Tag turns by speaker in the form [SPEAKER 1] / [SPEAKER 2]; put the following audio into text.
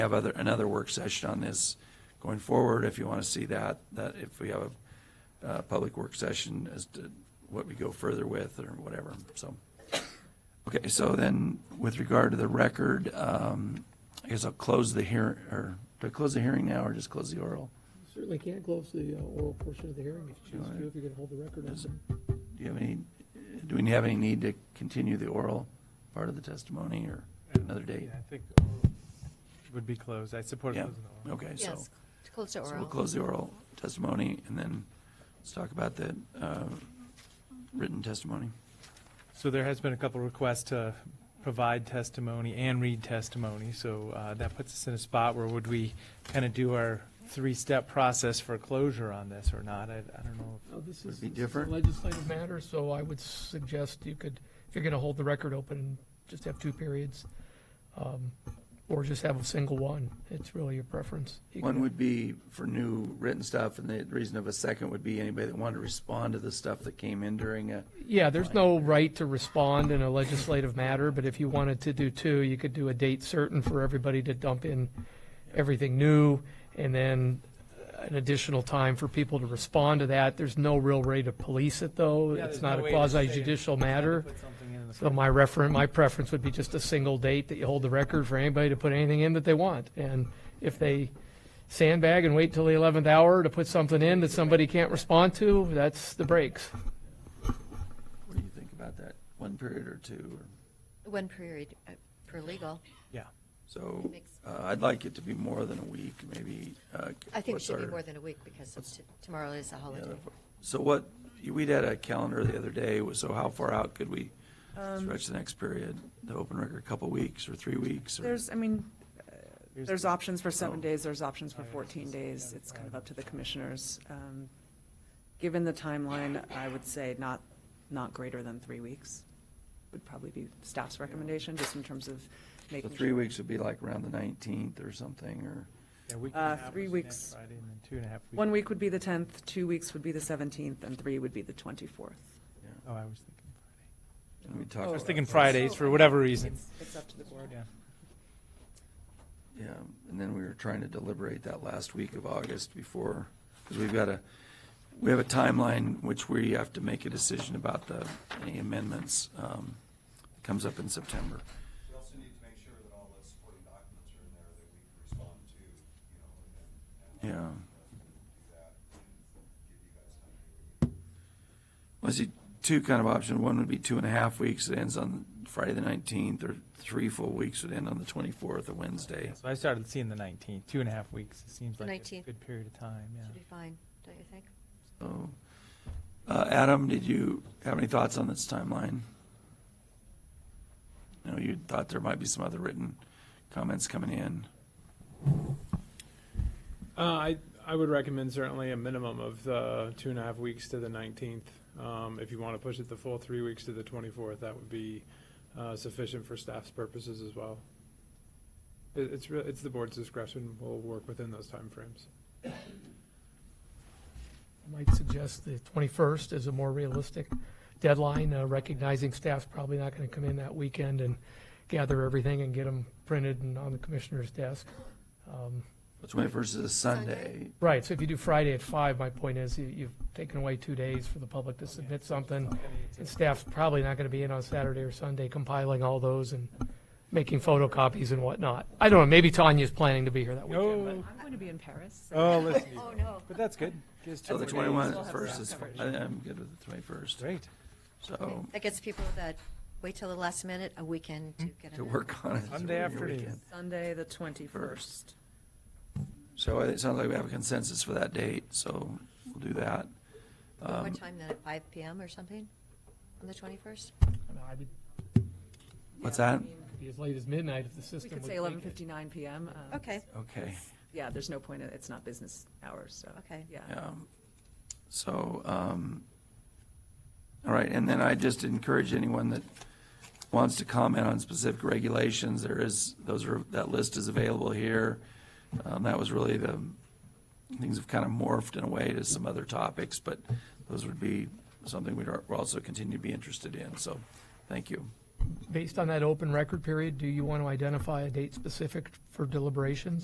[SPEAKER 1] have other, another work session on this going forward, if you want to see that, that if we have a, uh public work session as to what we go further with or whatever, so. Okay, so then with regard to the record, um, I guess I'll close the hear, or, do I close the hearing now or just close the oral?
[SPEAKER 2] Certainly can't close the uh, oral portion of the hearing if you choose to, if you're going to hold the record on
[SPEAKER 1] Is-
[SPEAKER 2] it.
[SPEAKER 1] Do you have any, do we have any need to continue the oral part of the testimony or another date?
[SPEAKER 3] Yeah, I think uh, would be closed. I support
[SPEAKER 1] Yeah,
[SPEAKER 3] closing the oral.
[SPEAKER 1] okay, so.
[SPEAKER 4] Yes, to close to
[SPEAKER 1] So we'll
[SPEAKER 4] oral.
[SPEAKER 1] close the oral testimony, and then let's talk about the uh, written testimony.
[SPEAKER 3] So there has been a couple requests to provide testimony and read testimony, so uh, that puts us in a spot where would we kind of do our three-step process for closure on this or not? I, I don't know.
[SPEAKER 2] Now, this
[SPEAKER 1] Would
[SPEAKER 2] is
[SPEAKER 1] be
[SPEAKER 2] this is a
[SPEAKER 1] different?
[SPEAKER 2] legislative matter, so I would suggest you could, if you're going to hold the record open, just have two periods, um, or just have a single one. It's really your preference. You
[SPEAKER 1] One
[SPEAKER 2] can-
[SPEAKER 1] would be for new written stuff, and the reason of a second would be anybody that wanted to respond to the stuff that came in during a,
[SPEAKER 2] Yeah, there's no right to respond in a legislative matter, but if you wanted to do two, you could do a date certain for everybody to dump in everything new, and then an additional time for people to respond to that. There's no real way to police it, though. It's not a quasi judicial matter. So my reference, my preference would be just a single date that you hold the record for anybody to put anything in that they want. And if they sandbag and wait till the 11th hour to put something in that somebody can't respond to, that's the breaks.
[SPEAKER 1] what do you think about that? One period or two? or-
[SPEAKER 4] One period uh, per legal.
[SPEAKER 3] Yeah.
[SPEAKER 1] So
[SPEAKER 4] Makes-
[SPEAKER 1] uh, I'd like it to be more than a week, maybe. uh,
[SPEAKER 4] I think it
[SPEAKER 1] what's
[SPEAKER 4] should be
[SPEAKER 1] our-
[SPEAKER 4] more than a week because of t- tomorrow is a
[SPEAKER 1] yeah,
[SPEAKER 4] holiday.
[SPEAKER 1] the- So what, we'd had a calendar the other day, was so how far out could we
[SPEAKER 4] Um,
[SPEAKER 1] stretch the next period? The open record, a couple weeks or three weeks? or-
[SPEAKER 5] There's, I mean,
[SPEAKER 3] Here's
[SPEAKER 5] there's
[SPEAKER 3] the-
[SPEAKER 5] options for seven
[SPEAKER 1] Oh.
[SPEAKER 5] days, there's options for
[SPEAKER 3] Oh, yeah,
[SPEAKER 5] 14
[SPEAKER 3] this is-
[SPEAKER 5] days.
[SPEAKER 3] yeah,
[SPEAKER 5] It's kind of
[SPEAKER 3] right.
[SPEAKER 5] up to the commissioners. Um, Given the timeline, I would say not, not greater than three weeks would probably be staff's recommendation, just in terms of
[SPEAKER 1] So
[SPEAKER 5] making.
[SPEAKER 1] three
[SPEAKER 5] sure-
[SPEAKER 1] weeks would be like around the 19th or something, or,
[SPEAKER 3] Yeah, week and a
[SPEAKER 5] Uh,
[SPEAKER 3] half
[SPEAKER 5] three
[SPEAKER 3] was next
[SPEAKER 5] weeks.
[SPEAKER 3] Friday and then two and a half weeks.
[SPEAKER 5] One week would be the 10th, two weeks would be the 17th, and three would be the 24th.
[SPEAKER 3] Oh, I was thinking Friday.
[SPEAKER 1] and we talked.
[SPEAKER 3] I was
[SPEAKER 1] about
[SPEAKER 3] thinking
[SPEAKER 1] this.
[SPEAKER 3] Oh, Fridays for whatever reason.
[SPEAKER 5] It's up to the board.
[SPEAKER 3] Yeah.
[SPEAKER 1] Yeah, and then we were trying to deliberate that last week of August before, because we've got a, we have a timeline which we have to make a decision about the, any amendments, um, comes up in September.
[SPEAKER 6] We also need to make sure that all the supporting documents are in there that we can respond to, you know,
[SPEAKER 1] Yeah.
[SPEAKER 6] and, and. Do that and give you guys time to review.
[SPEAKER 1] I see two kind of options. One would be two and a half weeks, it ends on Friday the 19th, or three full weeks would end on the 24th, a Wednesday.
[SPEAKER 3] So I started seeing the 19th, two and a half weeks. It seems
[SPEAKER 4] The
[SPEAKER 3] like a
[SPEAKER 4] 19th.
[SPEAKER 3] good period of time,
[SPEAKER 4] Should be
[SPEAKER 3] yeah.
[SPEAKER 4] fine, don't you think?
[SPEAKER 1] So, uh, Adam, did you have any thoughts on this timeline? No, you thought there might be some other written comments coming in.
[SPEAKER 7] Uh, I, I would recommend certainly a minimum of uh, two and a half weeks to the 19th. Um, If you want to push it the full three weeks to the 24th, that would be uh, sufficient for staff's purposes as well. It- It's, re- it's the board's discretion. We'll work within those timeframes.
[SPEAKER 2] I might suggest the 21st is a more realistic deadline, uh, recognizing staff's probably not going to come in that weekend and gather everything and get them printed and on the commissioner's desk. Um,
[SPEAKER 1] The 21st is a Sunday.
[SPEAKER 2] Right, so if you do Friday at five, my point is you- you've taken away two days for the public to submit something. And staff's probably not going to be in on Saturday or Sunday compiling all those and making photocopies and whatnot. I don't know, maybe Tanya's planning to be here that weekend, but.
[SPEAKER 3] Oh,
[SPEAKER 5] I'm going to be in Paris.
[SPEAKER 3] oh, listen. to you.
[SPEAKER 4] Oh, no.
[SPEAKER 3] But that's good. Gives
[SPEAKER 1] So
[SPEAKER 3] two
[SPEAKER 1] the
[SPEAKER 3] more days.
[SPEAKER 1] 21st is, I- I'm good with the 21st.
[SPEAKER 3] Great.
[SPEAKER 1] So
[SPEAKER 4] That gets people that wait till the last minute, a weekend to get
[SPEAKER 1] Hmm. to
[SPEAKER 4] it.
[SPEAKER 1] work on it.
[SPEAKER 3] Sunday
[SPEAKER 1] over your
[SPEAKER 3] afternoon.
[SPEAKER 1] weekend.
[SPEAKER 5] Sunday, the 21st.
[SPEAKER 1] So it sounds like we have a consensus for that date, so we'll do that. Um,
[SPEAKER 4] What time then, at five PM or something on the 21st?
[SPEAKER 1] uh,
[SPEAKER 2] I mean,
[SPEAKER 1] What's that?
[SPEAKER 2] it'd be As late as midnight if the
[SPEAKER 5] We
[SPEAKER 2] system
[SPEAKER 5] could
[SPEAKER 2] would
[SPEAKER 5] say
[SPEAKER 2] take it.
[SPEAKER 5] 11:59 PM. um,
[SPEAKER 4] Okay,
[SPEAKER 1] Okay.
[SPEAKER 5] Yeah, there's no point, in- it's not business hours, so.
[SPEAKER 4] Okay.
[SPEAKER 5] Yeah.
[SPEAKER 1] Um, So, um, all right, and then I just encourage anyone that wants to comment on specific regulations, there is, those are, that list is available here. Um, That was really the, things have kind of morphed in a way to some other topics, but those would be something we'd al- we'll also continue to be interested in, so, thank you.
[SPEAKER 2] based on that open record period, do you want to identify a date specific for deliberations?